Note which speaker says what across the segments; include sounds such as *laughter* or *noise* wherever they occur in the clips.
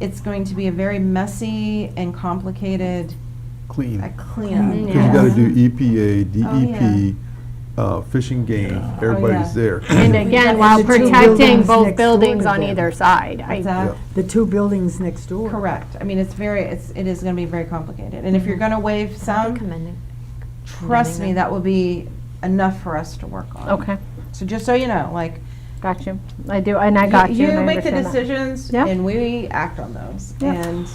Speaker 1: it's going to be a very messy and complicated
Speaker 2: clean.
Speaker 1: uh, cleanup.
Speaker 2: Because
Speaker 1: yes.
Speaker 2: you gotta do E EPA,
Speaker 1: Oh, yeah.
Speaker 2: DEP, uh, Fish and Game, everybody's there. *laughs*
Speaker 3: And
Speaker 1: We've
Speaker 3: again,
Speaker 4: got the
Speaker 3: while
Speaker 4: two
Speaker 3: protecting
Speaker 4: buildings
Speaker 3: both
Speaker 4: next door
Speaker 3: buildings
Speaker 4: to
Speaker 3: on
Speaker 4: them.
Speaker 3: either side. I-
Speaker 1: What's that?
Speaker 2: Yeah.
Speaker 4: The two buildings next door.
Speaker 1: Correct. I mean, it's very, it's, it is gonna be very complicated. And if you're gonna waive some,
Speaker 5: Commending.
Speaker 1: trust me,
Speaker 5: Commending them.
Speaker 1: that will be enough for us to work on.
Speaker 3: Okay,
Speaker 1: So just so you know, like,
Speaker 3: got you. I do, and I got you. and I
Speaker 1: make the
Speaker 3: understand that.
Speaker 1: decisions
Speaker 3: Yeah.
Speaker 1: and we act on those.
Speaker 3: Yeah.
Speaker 1: And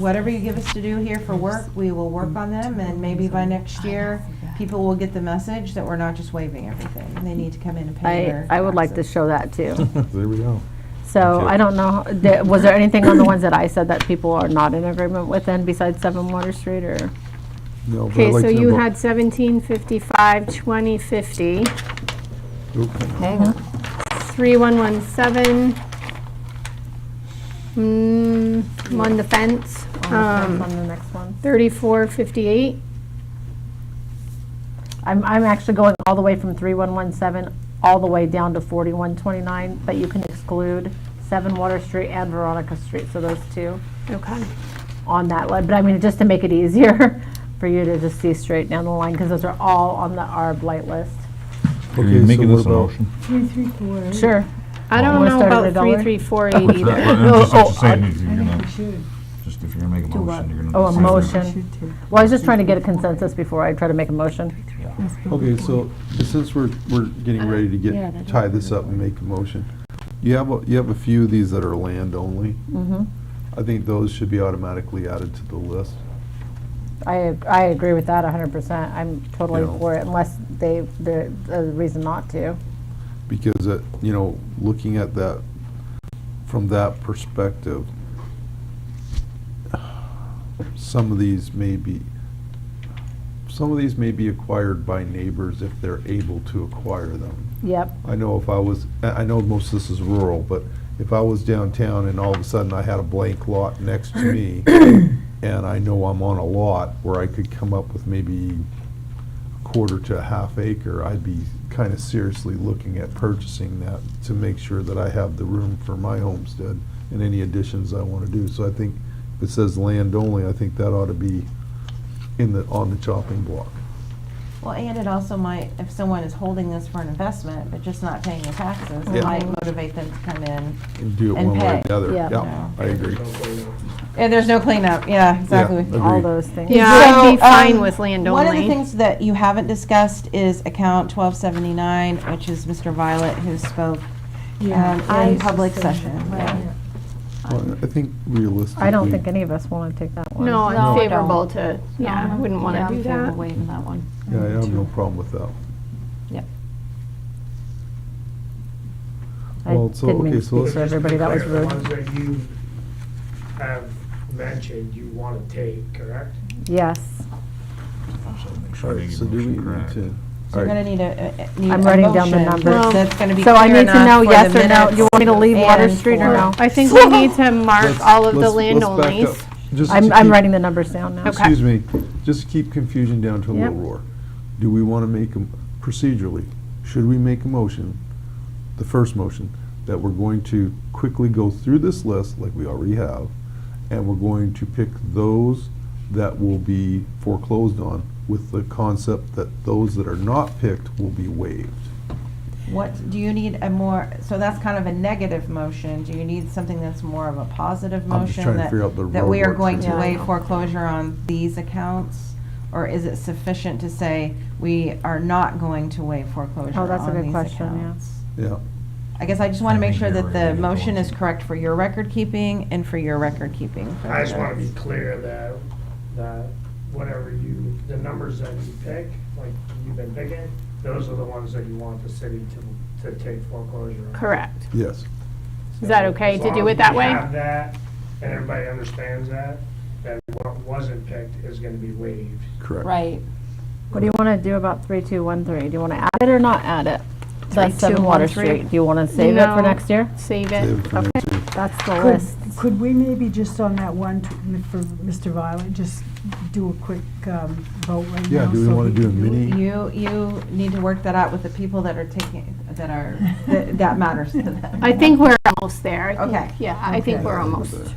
Speaker 1: whatever you give us to do here for work, we will work on them and maybe by next year, people will get the message that we're not just waiving everything. They need to come in and pay
Speaker 3: I,
Speaker 1: their.
Speaker 3: I would like to
Speaker 1: taxes.
Speaker 3: show
Speaker 2: *laughs*
Speaker 3: that too.
Speaker 2: There we go.
Speaker 3: So
Speaker 2: Okay.
Speaker 3: I don't know, th- was there anything on the ones that I said that people are not in agreement with then besides Seven Water Street or?
Speaker 2: No, but I'd
Speaker 3: Okay,
Speaker 2: like
Speaker 3: so
Speaker 2: to know
Speaker 3: you
Speaker 2: about-
Speaker 3: had seventeen fifty-five, twenty fifty,
Speaker 2: Oop.
Speaker 5: Hang on.
Speaker 3: three one one seven. Mm, on the fence,
Speaker 5: On
Speaker 3: um,
Speaker 5: the next one.
Speaker 3: thirty-four fifty-eight. I'm, I'm actually going all the way from three one one seven, all the way down to forty-one twenty-nine, but you can exclude Seven Water Street and Veronica Street, so those two.
Speaker 5: Okay.
Speaker 3: on that line, but I mean, just to make it easier *laughs* for you to just see straight down the line, because those are all on the ARB blight list.
Speaker 6: Can
Speaker 2: Okay,
Speaker 6: you make
Speaker 2: so
Speaker 6: it
Speaker 2: what
Speaker 6: as a
Speaker 2: about-
Speaker 6: motion?
Speaker 4: Three, three, four. eight.
Speaker 3: Sure.
Speaker 6: I
Speaker 3: I
Speaker 6: don't
Speaker 3: don't
Speaker 6: Wanna
Speaker 3: know
Speaker 6: know start
Speaker 3: about
Speaker 6: at
Speaker 3: about three, three, four, eight
Speaker 6: That's what-
Speaker 3: either.
Speaker 6: I'm just
Speaker 3: No,
Speaker 6: I'm just
Speaker 3: oh, I-
Speaker 6: saying,
Speaker 4: I
Speaker 6: if you're
Speaker 4: think
Speaker 6: gonna-
Speaker 4: we should.
Speaker 6: just if you're gonna make a
Speaker 4: Do what?
Speaker 6: motion, you're gonna.
Speaker 3: Oh, a
Speaker 6: decide whether-
Speaker 3: motion.
Speaker 4: We should take-
Speaker 3: Well, I was just trying to get a consensus before I try to make a motion.
Speaker 6: Yeah.
Speaker 4: Let's go
Speaker 2: Okay,
Speaker 4: with
Speaker 2: so since we're, we're getting ready to
Speaker 5: Yeah, that
Speaker 2: get, tie this up and make a motion, you have, a- you have a few of these that are land only.
Speaker 3: Mm-hmm.
Speaker 2: I think those should be automatically added to the list.
Speaker 3: I, I agree with that hundred percent. I'm totally
Speaker 2: Yeah.
Speaker 3: for it unless they, the, the reason not to.
Speaker 2: because it, you know, looking at that, from that perspective, some of these may be, some of these may be acquired by neighbors if they're able to acquire them.
Speaker 3: Yep,
Speaker 2: I know if I was, I I know most of this is rural, but if I was downtown and all of a sudden I had a blank lot next to me, and I know I'm on a lot where I could come up with maybe quarter to a half acre, I'd be kind of seriously looking at purchasing that to make sure that I have the room for my homestead and any additions I want to do. So I think if it says land only, I think that ought to be in the, on the chopping block.
Speaker 1: Well, and it also might, if someone is holding this for an investment, but just not paying the taxes,
Speaker 2: Yeah.
Speaker 1: it might motivate them to come in.
Speaker 2: And do it
Speaker 1: And
Speaker 2: one way or
Speaker 1: pay.
Speaker 2: the other.
Speaker 3: Yeah.
Speaker 2: Yeah, I agree.
Speaker 1: And there's no cleanup, yeah, exactly.
Speaker 2: Yeah.
Speaker 3: all
Speaker 2: Agreed.
Speaker 3: those things.
Speaker 1: So,
Speaker 3: Yeah.
Speaker 5: Yeah, I'd be fine
Speaker 1: um,
Speaker 5: with land
Speaker 1: One of the
Speaker 5: only.
Speaker 1: things that you haven't discussed is account twelve seventy-nine, which is Mr. Violet who spoke.
Speaker 4: you. Yeah,
Speaker 1: um,
Speaker 4: I
Speaker 1: in
Speaker 4: was just
Speaker 1: public
Speaker 4: saying
Speaker 1: session,
Speaker 4: that.
Speaker 1: yeah.
Speaker 4: Yeah.
Speaker 2: Well, I think realistically.
Speaker 3: I don't think any of us want to take that one.
Speaker 5: *laughs* No,
Speaker 2: No,
Speaker 5: I'm
Speaker 2: I
Speaker 5: favorable to, yeah, I
Speaker 7: I'm-
Speaker 5: wouldn't
Speaker 7: yeah,
Speaker 5: want to do
Speaker 7: I'm favorable
Speaker 5: that.
Speaker 7: waiving that one.
Speaker 2: Yeah, I have no problem with that.
Speaker 3: I
Speaker 2: Well, so,
Speaker 3: didn't mean
Speaker 2: okay,
Speaker 3: to
Speaker 2: so
Speaker 3: speak for
Speaker 2: let's-
Speaker 3: everybody, that was
Speaker 8: The
Speaker 3: rude.
Speaker 8: ones that you have mentioned you want to take, correct?
Speaker 3: Yes.
Speaker 6: So make
Speaker 2: All
Speaker 6: sure they
Speaker 2: right,
Speaker 6: get
Speaker 2: so do we
Speaker 6: motion
Speaker 2: need
Speaker 6: correct.
Speaker 2: to?
Speaker 1: So you're gonna need a, a- a- need
Speaker 3: I'm
Speaker 1: a
Speaker 3: writing down the
Speaker 1: motion
Speaker 3: numbers.
Speaker 1: That's gonna be
Speaker 3: So I
Speaker 1: clear
Speaker 3: need to
Speaker 1: enough
Speaker 3: know
Speaker 1: for
Speaker 3: yes
Speaker 1: the
Speaker 3: or no.
Speaker 1: minutes.
Speaker 3: You want me to leave Water
Speaker 1: and
Speaker 3: Street or
Speaker 1: for-
Speaker 3: no?
Speaker 5: I think we need to mark
Speaker 2: Let's-
Speaker 5: all of the
Speaker 2: let's-
Speaker 5: land
Speaker 2: let's back
Speaker 5: onlys.
Speaker 2: up. Just to
Speaker 3: I'm, I'm
Speaker 2: keep-
Speaker 3: writing the numbers down now.
Speaker 5: Okay.
Speaker 2: Excuse me, just to keep confusion down to a little
Speaker 3: Yep.
Speaker 2: roar. Do we want to make, a- procedurally, should we make a motion, the first motion, that we're going to quickly go through this list, like we already have, and we're going to pick those that will be foreclosed on with the concept that those that are not picked will be waived?
Speaker 1: What, do you need a more, so that's kind of a negative motion. Do you need something that's more of a positive
Speaker 2: I'm just
Speaker 1: motion?
Speaker 2: trying to
Speaker 1: that-
Speaker 2: figure out the
Speaker 1: That we are
Speaker 2: roadwork
Speaker 1: going
Speaker 2: for
Speaker 1: to
Speaker 2: this.
Speaker 1: waive foreclosure on these accounts? Or is it sufficient to say we are not going to waive foreclosure
Speaker 3: Oh, that's a
Speaker 1: on
Speaker 3: good
Speaker 1: these
Speaker 3: question, yeah.
Speaker 1: accounts?
Speaker 2: Yeah,
Speaker 1: I guess I just want to
Speaker 6: I
Speaker 1: make
Speaker 6: think
Speaker 1: sure
Speaker 6: you're
Speaker 1: that
Speaker 6: right,
Speaker 1: the
Speaker 6: you're
Speaker 1: motion
Speaker 6: going
Speaker 1: is
Speaker 6: to.
Speaker 1: correct for your record keeping and for your record keeping. for
Speaker 8: I just
Speaker 1: the-
Speaker 8: want to be clear that, that whatever you, the numbers that you pick, like you've been picking, those are the ones that you want the city to, to take foreclosure on.
Speaker 5: Correct.
Speaker 2: yes.
Speaker 5: Is that okay
Speaker 8: As
Speaker 5: to
Speaker 8: long
Speaker 5: do
Speaker 8: as
Speaker 5: it that
Speaker 8: we
Speaker 5: way?
Speaker 8: have that, and everybody understands that, that what wasn't picked is going to be waived.
Speaker 2: Correct.
Speaker 7: Right.
Speaker 3: What do you want to do about 3213? Do you want to add it or not add it?
Speaker 5: Three,
Speaker 3: That's 7
Speaker 5: two,
Speaker 3: Water
Speaker 5: one, three.
Speaker 3: Street. Do you want to save it for
Speaker 5: No.
Speaker 3: next year?
Speaker 5: Save
Speaker 2: Save
Speaker 5: it.
Speaker 2: it for next year.
Speaker 3: That's the
Speaker 4: Could,
Speaker 3: list.
Speaker 4: could we maybe just on that one, t- for Mr. Violet, just do a quick um, vote right now?
Speaker 2: Yeah, do we
Speaker 4: so
Speaker 2: want
Speaker 4: he
Speaker 2: to do a
Speaker 4: can it?
Speaker 2: mini?
Speaker 1: You, you need to work that out with the people that are taking, that are, that that matters to them. *laughs*
Speaker 5: I think we're almost there. I think-
Speaker 1: Okay.
Speaker 5: Yeah, I think
Speaker 4: Okay.
Speaker 5: we're almost.